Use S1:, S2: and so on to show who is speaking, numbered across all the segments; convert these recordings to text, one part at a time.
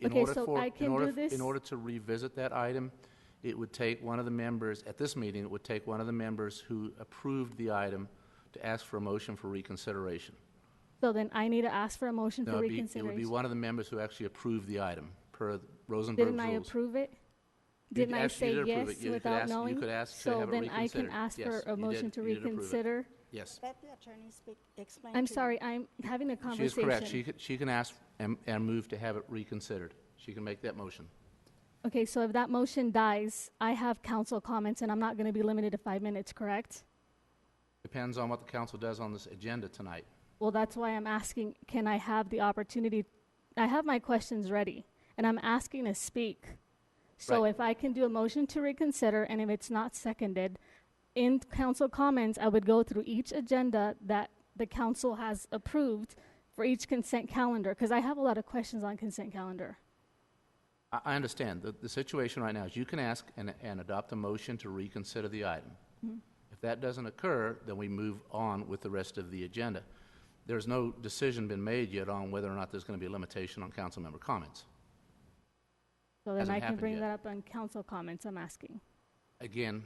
S1: In
S2: Okay,
S1: order
S2: so
S1: for-
S2: I
S1: in
S2: can
S1: order-
S2: do this?
S1: In order to revisit that item, it would take one of the members, at this meeting, it would take one of the members who approved the item to ask for a motion for reconsideration.
S2: So then I need to ask for a motion
S1: No,
S2: for
S1: it'd be- It would be
S2: reconsideration.
S1: one of the members who actually approved the item, per Rosenberg's
S2: Didn't
S1: rules.
S2: I approve it?
S1: You
S2: Didn't
S1: did-
S2: I
S1: actually,
S2: say
S1: you did approve it.
S2: yes
S1: You- you could
S2: without
S1: ask- you
S2: knowing?
S1: could ask to have it
S2: So then I
S1: reconsidered.
S2: can ask for
S1: Yes,
S2: a
S1: you
S2: motion
S1: did-
S2: to
S1: you did approve it.
S2: reconsider?
S1: Yes.
S3: Let the attorney speak, explain
S2: I'm
S3: to you.
S2: sorry, I'm having
S1: She
S2: a
S1: is
S2: conversation.
S1: correct. She could- She can ask and and move to have it reconsidered. She can make that motion.
S2: Okay, so if that motion dies, I have council comments and I'm not going to be limited to five minutes, correct?
S1: Depends on what the council does on this agenda tonight.
S2: Well, that's why I'm asking, can I have the opportunity? I have my questions ready, and I'm asking to speak. So
S1: Right.
S2: if I can do a motion to reconsider, and if it's not seconded, in council comments, I would go through each agenda that the council has approved for each consent calendar, because I have a lot of questions on consent calendar.
S1: I, I understand. The, the situation right now is you can ask and, and adopt a motion to reconsider the item.
S4: Mm-hmm.
S1: If that doesn't occur, then we move on with the rest of the agenda. There's no decision been made yet on whether or not there's going to be a limitation on council member comments.
S2: So then
S1: Hasn't
S2: I can
S1: happened
S2: bring
S1: yet.
S2: that up on council comments, I'm asking.
S1: Again,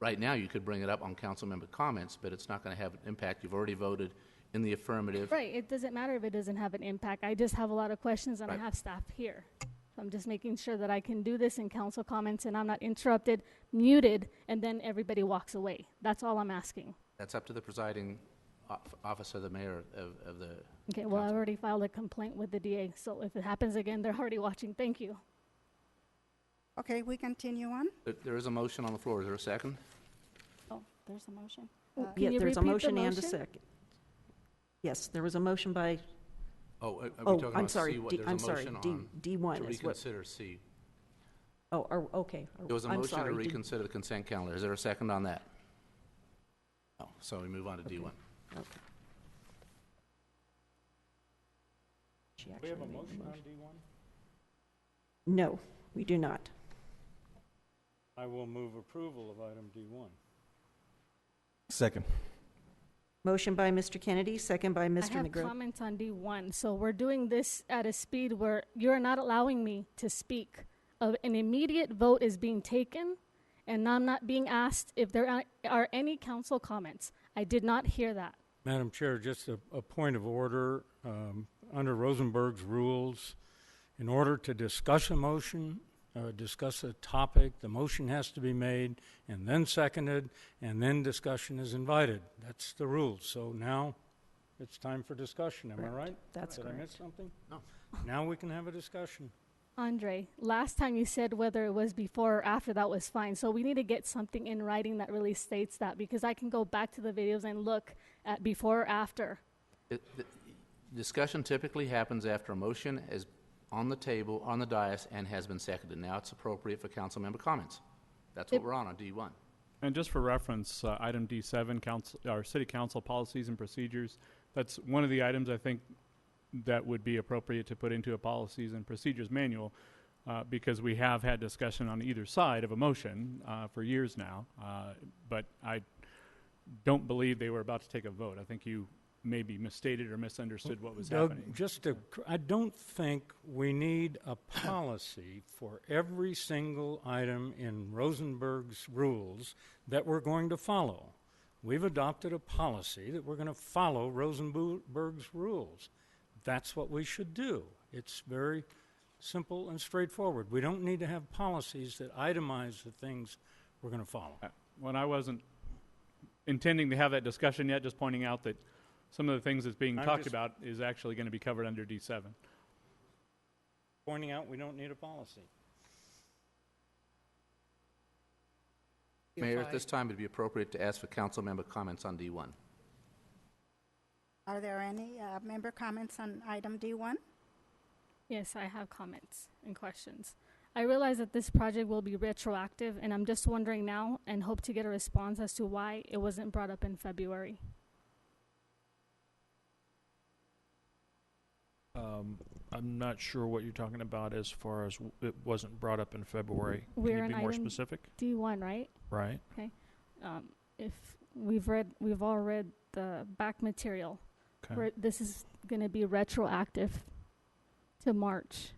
S1: right now you could bring it up on council member comments, but it's not going to have an impact. You've already voted in the affirmative.
S2: Right, it doesn't matter if it doesn't have an impact. I just have a lot of questions and I
S1: Right.
S2: have staff here. So I'm just making sure that I can do this in council comments and I'm not interrupted, muted, and then everybody walks away. That's all I'm asking.
S1: That's up to the presiding of- officer, the mayor of, of the.
S2: Okay, well, I've
S1: council.
S2: already filed a complaint with the DA, so if it happens again, they're already watching. Thank you.
S3: Okay, we continue on?
S1: There- There is a motion on the floor. Is there a second?
S3: Oh, there's a motion.
S2: Oh,
S3: Uh,
S2: Can
S4: Yeah,
S2: you
S4: there's a
S2: repeat the
S4: motion and a
S2: motion?
S4: second. Yes, there was a motion by,
S1: Oh, are- are we
S4: oh,
S1: talking
S4: I'm
S1: about
S4: sorry,
S1: C? What-
S4: D-
S1: there's a
S4: I'm sorry,
S1: motion
S4: D,
S1: on- To
S4: D1 is what,
S1: reconsider C.
S4: oh, are- okay. are-
S1: There was a
S4: I'm
S1: motion to
S4: sorry, D-
S1: reconsider the consent calendar. Is there a second on that? No, so we move on to D1.
S4: okay. She actually made the motion.
S5: D1?
S4: No, we do not.
S5: I will move approval of item D1.
S6: Second.
S4: Motion by Mr. Kennedy, second by
S2: I
S4: Mr.
S2: have
S4: McGrill.
S2: comments on D1, so we're doing this at a speed where you're not allowing me to speak. Of an immediate vote is being taken, and I'm not being asked if there are- are any council comments. I did not hear that.
S5: Madam Chair, just a, a point of order. Um, Under Rosenberg's rules, in order to discuss a motion, uh, discuss a topic, the motion has to be made and then seconded, and then discussion is invited. That's the rule. So now it's time for discussion, am I
S4: Correct.
S5: right?
S4: That's
S5: Did I miss
S4: correct.
S5: something?
S1: No.
S5: Now we can have a discussion.
S2: Andre, last time you said whether it was before or after, that was fine. So we need to get something in writing that really states that, because I can go back to the videos and look at before or after.
S1: It- the- Discussion typically happens after a motion is on the table, on the dais, and has been seconded. Now it's appropriate for council member comments. That's what
S2: It-
S1: we're on, on D1.
S7: And just for reference, uh, item D7, council, our city council policies and procedures, that's one of the items I think that would be appropriate to put into a policies and procedures manual uh, because we have had discussion on either side of a motion uh, for years now. Uh, but I don't believe they were about to take a vote. I think you maybe misstated or misunderstood what was
S5: Doug,
S7: happening.
S5: just to, cr- I don't think we need a policy for every single item in Rosenberg's rules that we're going to follow. We've adopted a policy that we're going to follow Rosenberg's rules. That's what we should do. It's very simple and straightforward. We don't need to have policies that itemize the things we're going to follow.
S7: Uh, When I wasn't intending to have that discussion yet, just pointing out that some of the things that's being
S5: I'm
S7: talked
S5: just-
S7: about is actually going to be covered under D7.
S5: Pointing out we don't need a policy.
S1: Mayor, at this time, it'd be appropriate to ask for council member comments on D1.
S3: Are there any uh, member comments on item D1?
S2: Yes, I have comments and questions. I realize that this project will be retroactive, and I'm just wondering now and hope to get a response as to why it wasn't brought up in February.
S8: Um, I'm not sure what you're talking about as far as w- it wasn't brought up in February.
S2: Where
S8: Can
S2: an
S8: you be more
S2: item-
S8: specific?
S2: D1, right?
S8: Right.
S2: Um, if we've read, we've all read the back material,
S8: Okay.
S2: where this is going to be retroactive to March.